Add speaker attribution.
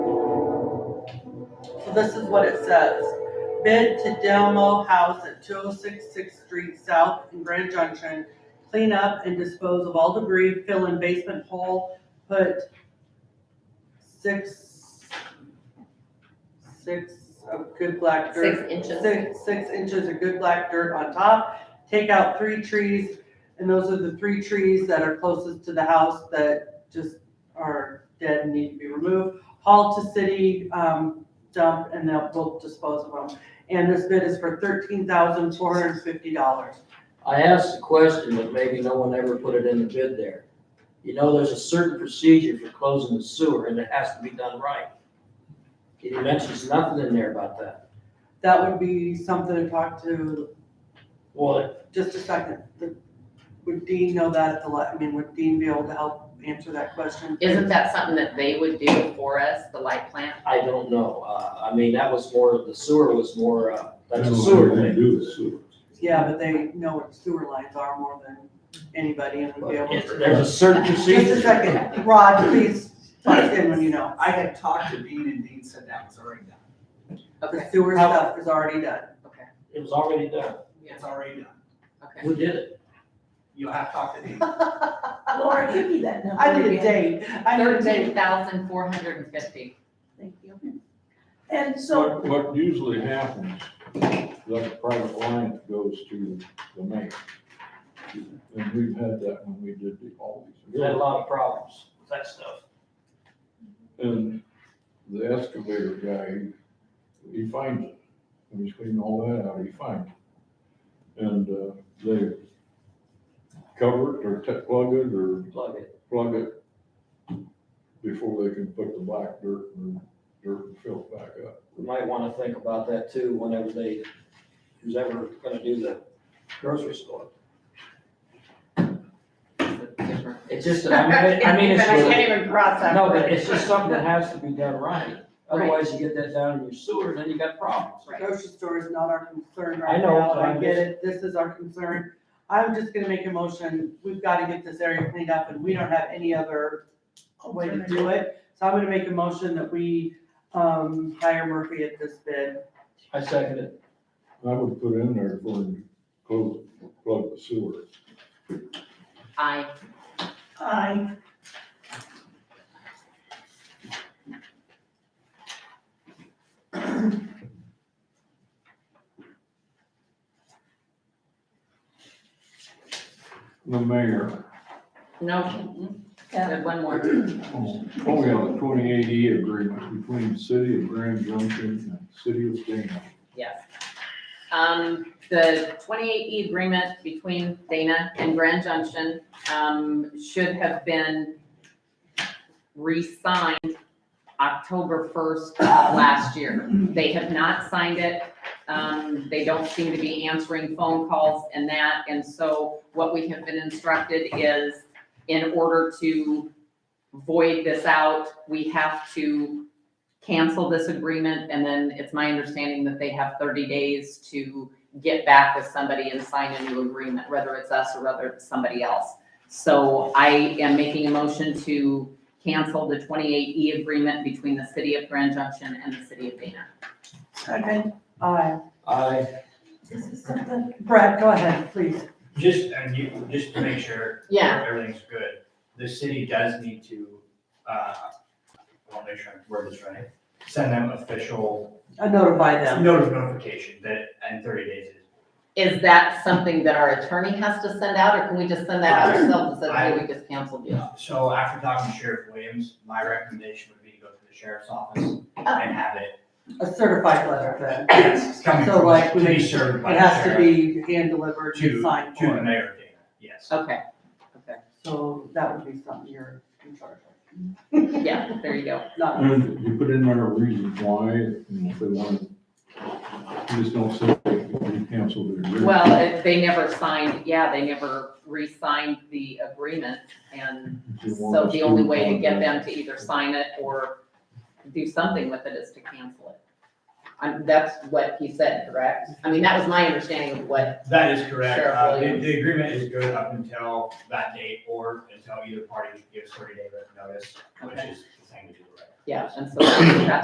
Speaker 1: this is what it says. Bid to Delmo House at two oh six Sixth Street South in Grand Junction. Clean up and dispose of all debris, fill in basement hole, put six, six of good black dirt.
Speaker 2: Six inches.
Speaker 1: Six, six inches of good black dirt on top, take out three trees, and those are the three trees that are closest to the house that just are dead and need to be removed. Haul to city, um, dump, and they'll both dispose of them. And this bid is for thirteen thousand four hundred and fifty dollars.
Speaker 3: I asked the question, but maybe no one ever put it in the bid there. You know, there's a certain procedure for closing the sewer and it has to be done right. He mentions nothing in there about that.
Speaker 1: That would be something to talk to,
Speaker 3: Well,
Speaker 1: just a second. Would Dean know that at the, la- I mean, would Dean be able to help answer that question?
Speaker 2: Isn't that something that they would do for us, the light plant?
Speaker 3: I don't know. Uh, I mean, that was more, the sewer was more, uh, that's a
Speaker 4: They don't
Speaker 3: sewer
Speaker 4: have
Speaker 3: thing.
Speaker 4: anything to do with sewer.
Speaker 1: Yeah, but they know what sewer lines are more than anybody and would be able
Speaker 3: It's-
Speaker 1: to.
Speaker 3: There's a certain procedure.
Speaker 1: Just a second, Rod, please, talk in when you know,
Speaker 5: I had talked to Dean and Dean said that was already done.
Speaker 1: the
Speaker 2: Okay,
Speaker 1: sewer stuff is already done.
Speaker 2: okay,
Speaker 3: It was already done.
Speaker 2: yeah,
Speaker 5: It's already done.
Speaker 2: okay.
Speaker 3: Who did it?
Speaker 5: You'll have to talk to Dean.
Speaker 6: Laura, give me that number.
Speaker 1: I need a
Speaker 6: again.
Speaker 1: date, I need a
Speaker 2: Thirteen
Speaker 1: date.
Speaker 2: thousand four hundred and fifty.
Speaker 6: Thank you. And so,
Speaker 4: What, what usually happens, like a private line goes to the mayor. And we've had that when we did the
Speaker 3: We had a
Speaker 4: Aldi's.
Speaker 3: lot of problems with that stuff.
Speaker 4: And the excavator guy, he finds it. When he's cleaning all that out, he finds it. And, uh, they cover it or te- plug it or
Speaker 3: Plug it.
Speaker 4: plug it before they can put the black dirt and dirt and fill it back up.
Speaker 3: We might want to think about that too, whenever they, who's ever going to do the grocery store. It's just, I mean, I mean, it's really,
Speaker 2: even cross
Speaker 3: no, but it's just something that has to be done right. Otherwise, you get that down in your sewer, then you got problems.
Speaker 2: Right.
Speaker 1: Grocery store is not our concern right
Speaker 3: I know,
Speaker 1: now,
Speaker 3: but
Speaker 1: I
Speaker 3: I'm
Speaker 1: get
Speaker 3: just-
Speaker 1: it, this is our concern. I'm just gonna make a motion, we've gotta get this area cleaned up and we don't have any other way to do it. So I'm gonna make a motion that we, um, hire Murphy at this bid.
Speaker 3: I second it.
Speaker 4: I would put in there for him to close, plug the sewer.
Speaker 2: I,
Speaker 6: I,
Speaker 4: The mayor,
Speaker 2: no, mm-mm,
Speaker 6: yeah,
Speaker 2: said one more.
Speaker 4: oh, we have a twenty eighty agreement between the city of Grand Junction and the city of Dana.
Speaker 2: Yes. Um, the twenty-eight E agreement between Dana and Grand Junction, um, should have been re-signed October first last year. They have not signed it. Um, they don't seem to be answering phone calls and that, and so what we have been instructed is in order to void this out, we have to cancel this agreement, and then it's my understanding that they have thirty days to get back with somebody and sign a new agreement, whether it's us or whether it's somebody else. So I am making a motion to cancel the twenty-eight E agreement between the city of Grand Junction and the city of Dana.
Speaker 6: second,
Speaker 1: Aye.
Speaker 3: I
Speaker 6: this is something,
Speaker 1: Brad, go ahead, please.
Speaker 7: Just, and you, just to make sure.
Speaker 2: Yeah.
Speaker 7: Everything's good, the city does need to, uh, I'll make sure I word this right, send them official
Speaker 1: I uh, notify them.
Speaker 7: notice notification that in thirty days is.
Speaker 2: Is that something that our attorney has to send out, or can we just send that out ourselves and say, hey, we just canceled you?
Speaker 7: So after talking to Sheriff Williams, my recommendation would be to go to the sheriff's office and have it,
Speaker 1: A certified letter then.
Speaker 7: yes, it's coming
Speaker 1: So,
Speaker 7: from,
Speaker 1: like,
Speaker 7: to be served by
Speaker 1: It
Speaker 7: the
Speaker 1: has to
Speaker 7: sheriff
Speaker 1: be hand-delivered and
Speaker 7: to,
Speaker 1: signed
Speaker 7: to the
Speaker 1: for.
Speaker 7: mayor of Dana, yes.
Speaker 2: Okay, okay,
Speaker 1: So that would be something you're in charge
Speaker 2: yeah, there you go.
Speaker 1: of.
Speaker 7: Mm.
Speaker 1: Not,
Speaker 4: And you put in there a reason why, you know, if they want, to- you just don't say, we canceled the agreement.
Speaker 2: Well, if they never signed, yeah, they never re-signed the agreement, and
Speaker 4: If you want
Speaker 2: So
Speaker 4: us
Speaker 2: the
Speaker 4: to
Speaker 2: only way to get
Speaker 4: apologize.
Speaker 2: them to either sign it or do something with it is to cancel it. And that's what he said, correct? I mean, that was my understanding of what,
Speaker 7: That is correct,
Speaker 2: Sheriff
Speaker 7: uh, the,
Speaker 2: Williams.
Speaker 7: the agreement is good up until that date or until either party gives thirty day written notice, which
Speaker 2: Okay.
Speaker 7: is the thing to do, right?
Speaker 2: yeah, and so that's